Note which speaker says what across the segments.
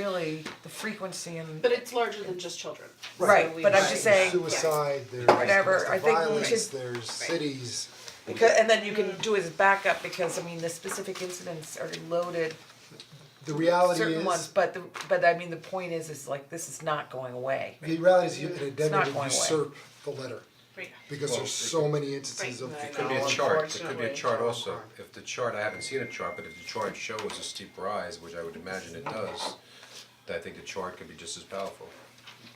Speaker 1: really the frequency and
Speaker 2: But it's larger than just children. So
Speaker 1: Right,
Speaker 2: we-
Speaker 1: but I'm just saying-
Speaker 3: Suicide, there's
Speaker 1: Whatever, I
Speaker 3: domestic
Speaker 1: think we
Speaker 3: violence,
Speaker 1: should-
Speaker 3: there's cities,
Speaker 1: because and then you can do as backup because I mean the specific incidents are loaded
Speaker 3: the reality
Speaker 1: certain ones,
Speaker 3: is,
Speaker 1: but the but I mean the point is is like this is not going away.
Speaker 3: the reality is you an
Speaker 1: not
Speaker 3: indemnity
Speaker 1: going away.
Speaker 3: usurp the letter.
Speaker 2: Right.
Speaker 3: Because there's so many instances of.
Speaker 2: Right. Right.
Speaker 4: Could be a
Speaker 2: No,
Speaker 4: chart, there could be a
Speaker 2: unfortunately,
Speaker 4: chart also, if the chart, I haven't seen a chart, but if the chart shows a steep rise, which I would imagine it does, then I think the chart could be just as powerful,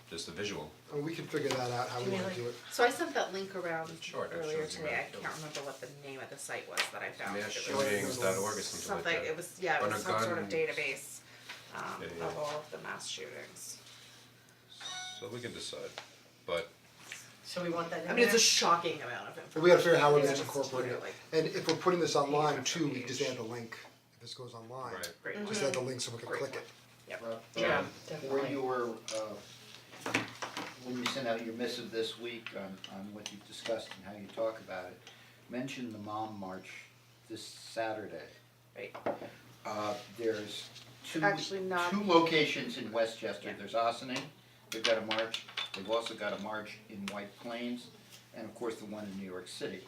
Speaker 4: just the visual.
Speaker 3: And we can figure that out, how we wanna do it.
Speaker 5: So I sent that link around
Speaker 4: Sure, that
Speaker 5: earlier
Speaker 4: shows you
Speaker 5: today,
Speaker 4: how
Speaker 5: I
Speaker 4: it
Speaker 5: can't remember what the name of the site was that I found.
Speaker 4: Mass
Speaker 5: It was
Speaker 4: shootings.org or something like
Speaker 5: Something,
Speaker 4: that.
Speaker 5: it was, yeah, it
Speaker 4: On
Speaker 5: was
Speaker 4: a
Speaker 5: some sort of
Speaker 4: gun-
Speaker 5: database, um,
Speaker 4: Yeah, yeah.
Speaker 5: of all of the mass shootings.
Speaker 4: So we can decide, but
Speaker 6: So we want that in
Speaker 5: I mean, it's a
Speaker 6: there?
Speaker 5: shocking amount of
Speaker 3: But
Speaker 5: information.
Speaker 3: we gotta figure out how we're
Speaker 5: Yeah,
Speaker 3: gonna
Speaker 5: it's
Speaker 3: incorporate it.
Speaker 5: literally
Speaker 3: And if we're putting this online
Speaker 5: Page
Speaker 3: too, we
Speaker 5: after
Speaker 3: just
Speaker 5: page.
Speaker 3: add the link, if this goes online.
Speaker 4: Right.
Speaker 5: Great.
Speaker 3: Just add the link so we can
Speaker 5: Great
Speaker 3: click
Speaker 5: point.
Speaker 3: it.
Speaker 7: Rob,
Speaker 6: Yeah,
Speaker 7: um, Where
Speaker 6: definitely.
Speaker 7: you were, uh, when you sent out your missive this week on, on what you've discussed and how you talk about it, mention the mom march this Saturday.
Speaker 5: Right.
Speaker 7: Uh, there's two,
Speaker 5: Actually not-
Speaker 7: two locations in Westchester,
Speaker 5: Yeah.
Speaker 7: there's Ossining, they've got a march, they've also got a march in White Plains, and of course the one in New York City.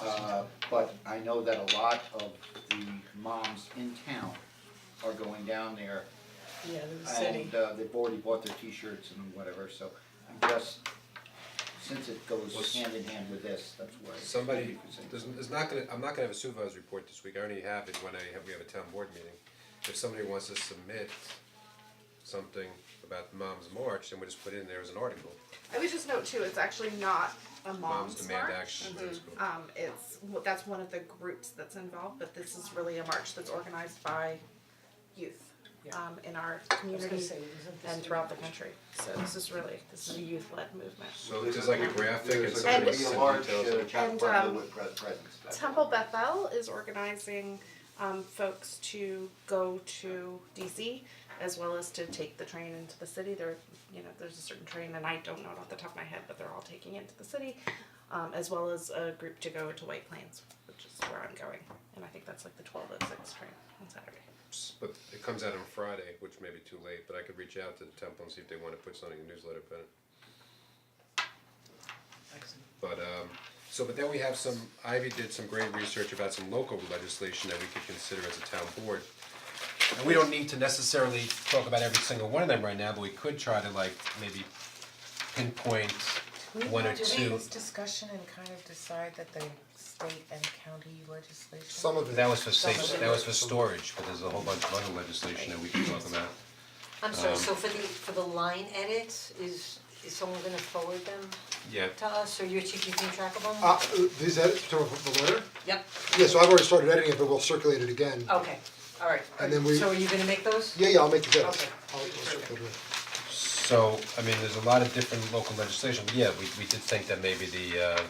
Speaker 7: Uh, but I know that a lot of the moms in town are going down there
Speaker 6: Yeah, there's a city.
Speaker 7: and uh they've already bought their t-shirts and whatever, so I'm just, since it goes
Speaker 4: Was-
Speaker 7: hand in hand with this, that's why.
Speaker 4: somebody, there's, there's not gonna, I'm not gonna have a supervisor's report this week, I already have it when I have, we have a town board meeting. If somebody wants to submit something about Mom's March, then we just put it in there as an article,
Speaker 5: I would just note too, it's actually not a
Speaker 4: Moms
Speaker 5: mom's
Speaker 4: Demand
Speaker 5: march.
Speaker 4: Action, that's cool.
Speaker 5: Um, it's, that's one of the groups that's involved, but this is really a march that's organized by youth, um, in our community
Speaker 6: say, isn't this
Speaker 5: and throughout the country. So this is really, this is a youth-led movement.
Speaker 4: so there's like a graphic and
Speaker 7: There's
Speaker 4: somebody
Speaker 7: gonna
Speaker 4: sends
Speaker 7: be
Speaker 4: details.
Speaker 7: a large uh,
Speaker 5: And,
Speaker 7: Chappaqua
Speaker 5: um,
Speaker 7: Millwood pres- presence that
Speaker 5: Temple Bethel is organizing um, folks to go to DC as well as to take the train into the city. There, you know, there's a certain train, and I don't know it off the top of my head, but they're all taking it to the city, um, as well as a group to go to White Plains, which is where I'm going, and I think that's like the 1206 train on Saturday.
Speaker 4: But it comes out on Friday, which may be too late, but I could reach out to the temple and see if they wanna put something in the newsletter, but. But um, so but then we have some, Ivy did some great research about some local legislation that we could consider as a town board. And we don't need to necessarily talk about every single one of them right now, but we could try to like maybe pinpoint one or two.
Speaker 1: Do we discussion and kind of decide that the state and county legislation?
Speaker 3: Some of it.
Speaker 4: That was for safe, that was for storage, but there's a whole bunch of other legislation that we could talk about.
Speaker 8: I'm sorry, so for the, for the line edits, is, is someone gonna forward them
Speaker 4: Yeah.
Speaker 8: to us, or you're keeping track of them?
Speaker 3: Uh, uh, these edits, from the letter?
Speaker 8: Yep,
Speaker 3: Yeah, so I've already started editing it, but we'll circulate it again.
Speaker 8: okay, alright,
Speaker 3: And then we-
Speaker 8: so are you gonna make those?
Speaker 3: Yeah, yeah, I'll make the edits.
Speaker 8: Okay.
Speaker 3: I'll, I'll circulate it.
Speaker 4: So, I mean, there's a lot of different local legislation, yeah, we we did think that maybe the uh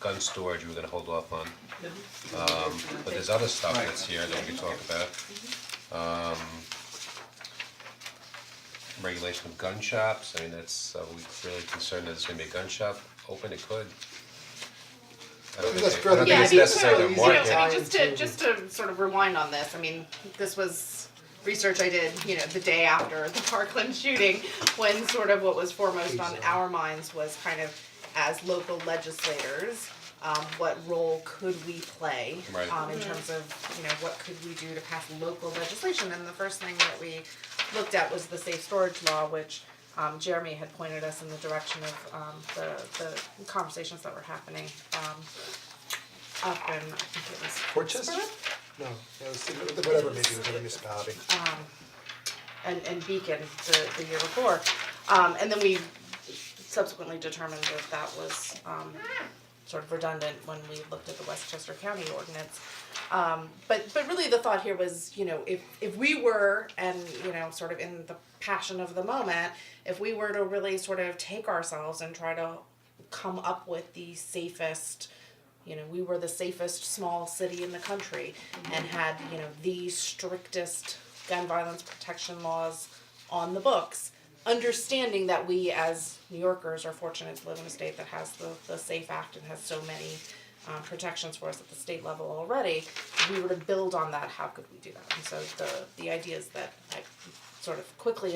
Speaker 4: gun storage we were gonna hold off on. Um but there's other stuff that's here that we can talk about. Um regulation of gun shops, I mean, that's, uh, we really concerned that there's gonna be a gun shop open, it could. I don't
Speaker 3: That's
Speaker 4: think, they- I don't
Speaker 3: fairly
Speaker 4: think it's
Speaker 3: easy.
Speaker 4: necessary to
Speaker 3: Yeah,
Speaker 4: market.
Speaker 3: be
Speaker 5: you know, I mean,
Speaker 3: Market.
Speaker 5: just to, just to sort of rewind on this, I mean, this was research I did, you know, the day after the Parkland shooting, when sort of what was foremost on our minds was kind of as local legislators, um, what role could we play?
Speaker 4: Right.
Speaker 5: Um, in terms of, you know, what could we do to pass local legislation, and the first thing that we looked at was the safe storage law, which um, Jeremy had pointed us in the direction of, um, the, the conversations that were happening, um, up in, I think it was
Speaker 3: Portchester? No, that was, whatever, maybe it was a municipality.
Speaker 5: and and Beacon the the year before. Um and then we subsequently determined that that was um sort of redundant when we looked at the Westchester County ordinance. Um but but really the thought here was, you know, if if we were and you know, sort of in the passion of the moment, if we were to really sort of take ourselves and try to come up with the safest you know, we were the safest small city in the country and had, you know, the strictest gun violence protection laws on the books. Understanding that we as New Yorkers are fortunate to live in a state that has the, the SAFE Act and has so many um, protections for us at the state level already, if we were to build on that, how could we do that? And so the, the idea is that I sort of quickly